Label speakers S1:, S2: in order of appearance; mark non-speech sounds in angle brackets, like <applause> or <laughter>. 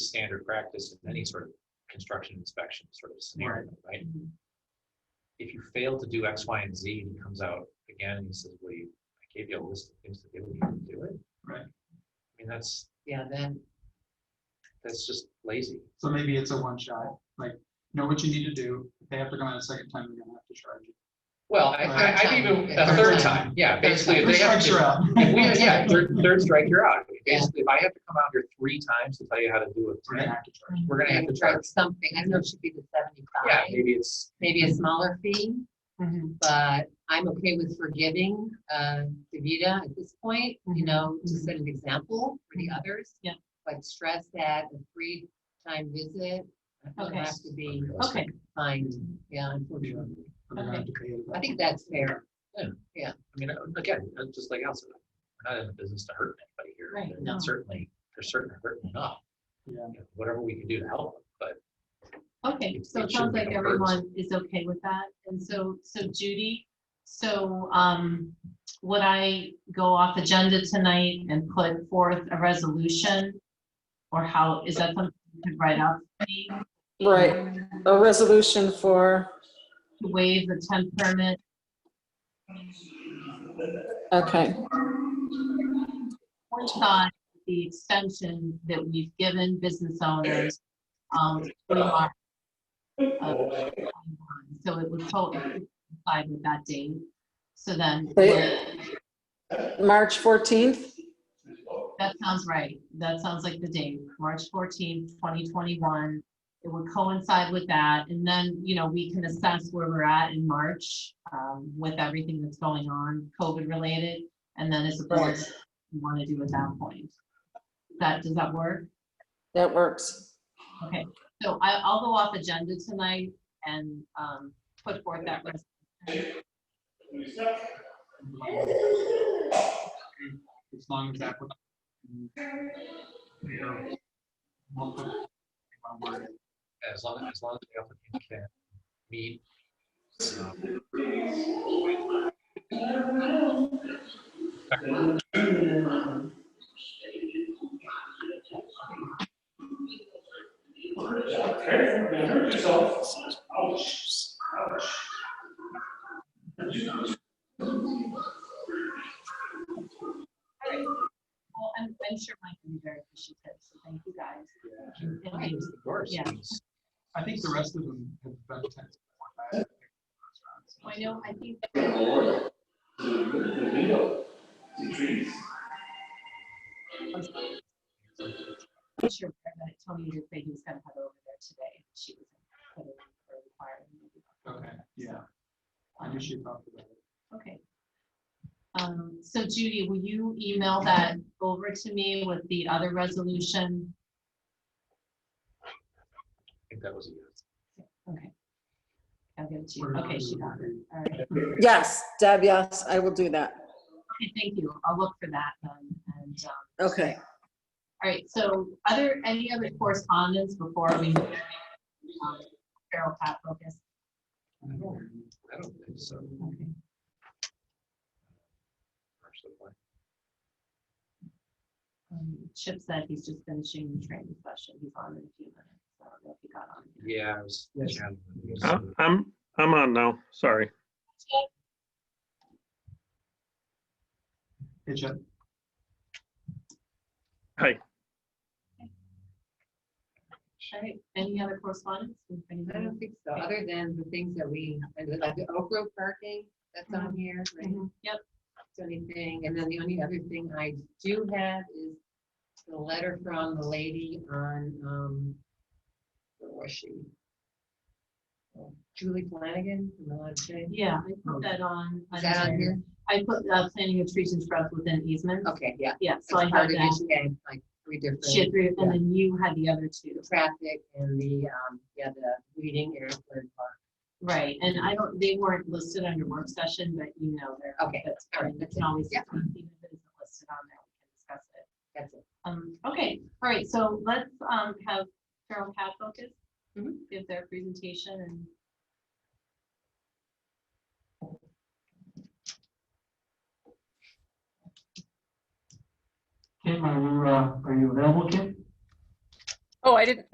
S1: standard practice in any sort of construction inspection sort of scenario, right?
S2: Mm-hmm.
S1: If you fail to do X, Y, and Z, and he comes out again and he says, well, you, I gave you a list of things to do, and you didn't do it.
S2: Right.
S1: I mean, that's,
S3: Yeah, then,
S1: that's just lazy.
S2: So maybe it's a one shot, like, know what you need to do. If they have to come out a second time, you're gonna have to charge it.
S1: Well, I, I, I'd even, a
S2: Third
S1: third
S2: time.
S1: time, yeah, basically, if
S2: Three
S1: they have
S2: strikes
S1: to.
S2: you're out.
S1: <laughs> If we- Yeah,
S3: Yeah.
S1: third, third strike, you're out.
S3: Yeah.
S1: Basically, if I have to come out here three times to tell you how to do
S2: We're
S1: it,
S2: gonna
S1: right,
S2: have to charge. Mm-hmm.
S1: we're gonna have to
S3: like
S1: charge.
S3: something, I know it should be the
S1: Yeah,
S3: seventy-five,
S1: maybe it's,
S3: maybe a smaller fee,
S4: Mhm.
S3: but I'm okay with forgiving, uh, DeVita at this point, you know, to set an example for the others.
S4: Mm-hmm. Yeah.
S3: But stress that a three-time visit, doesn't
S4: Okay.
S3: have to be
S4: Okay,
S3: fined, yeah, unfortunately.
S2: We're gonna
S1: <laughs>
S2: have to pay it.
S3: I think that's fair.
S1: I mean, uh, again, uh, just like Al said, we're not in the business to hurt anybody here.
S4: Right,
S1: They're
S3: no.
S1: Certainly, they're certainly hurting enough.
S2: Yeah.
S1: You know, Whatever we can do to help, them, but
S4: okay,
S1: It-
S4: so
S1: it
S4: it
S1: shouldn't
S4: sounds
S1: be
S4: like
S1: no burden.
S4: everyone is okay with that, and so, so Judy, so, um, would I go off agenda tonight and put forth a resolution? Or how, is that something you could write up? for me?
S5: Right, a resolution for,
S4: To waive the temp permit,
S5: okay,
S4: or thought the extension that we've given business owners, um, we are, uh, so it would totally apply with that date, so then.
S5: They- March 14th?
S4: That sounds right. That sounds like the date, March fourteenth, twenty twenty-one. It would coincide with that, and then, you know, we can assess where we're at in March, um, with everything that's going on, COVID related. And then as a board,
S5: Yes.
S4: we want to do at that point. That, does that work?
S5: That works.
S4: Okay, so I, I'll go off agenda tonight and, um, put forth that resolution.
S2: As long as that. would- Yeah. We'll put- I'll word it.
S1: as long, as long as the applicant can meet. um,
S4: Well, I'm, I'm sure Mike will be very appreciative, so thank you guys. And
S1: Right,
S4: thanks.
S1: of course.
S4: Yeah.
S2: I think the rest of them have been. tense.
S4: I know, I think I'm sure that Tony did say he was gonna head over there today. She was put in for a
S2: Okay,
S4: requirement.
S2: yeah. I knew she talked about it.
S4: Okay. Um, so Judy, will you email that over to me with the other resolution?
S1: I think that was a yes.
S4: Okay. I'll give it to you. Okay, she got it. All right.
S5: Yes, Deb, yes, I will do that.
S4: Okay, thank you. I'll look for that then. And, um,
S5: Okay.
S4: all right, so other, any other correspondence before we? move on? Um, Feral cat focus.
S1: I don't- I don't think so.
S4: Okay.
S1: Actually, like,
S4: Um, Chip said he's just finishing the training session. He's on in a few minutes. so I don't know if he got on.
S1: Yeah, I was.
S2: Yes.
S1: chatting with you,
S6: Uh,
S1: so-
S6: I'm, I'm on now, sorry.
S2: Hey, Jeff.
S4: All right, any other correspondence? If
S3: I
S4: anybody-
S3: don't think so, other than the things that we, like the Oak Grove parking that's on here, right?
S4: Mhm, Yep,
S3: So anything, and then the only other thing I do have is the letter from the lady on, um, where was she? Oh, Julie Flanagan from the last day.
S4: yeah, I put that on.
S3: Is that on here?
S4: I put, uh, planning of trees and shrubs within easement.
S3: Okay, yeah.
S4: Yeah, so I
S3: That's
S4: had
S3: part of it.
S4: that.
S3: She had, Like three different,
S4: She had three,
S3: Yeah.
S4: and then you had the other two.
S3: the traffic and the, um, yeah, the reading airport park.
S4: Right, and I don't, they weren't listed under work session, but you know, they're.
S3: Okay,
S4: that's-
S3: all right,
S4: We
S3: that's
S4: can always,
S3: yeah.
S4: even if it isn't listed on there, we can discuss it.
S3: That's it.
S4: Um, okay, all right, so let's, um, have Carol Cat focus,
S3: Mhm.
S4: give their presentation and.
S7: Kim, are you, uh, are you available, Kim? Oh, I didn't,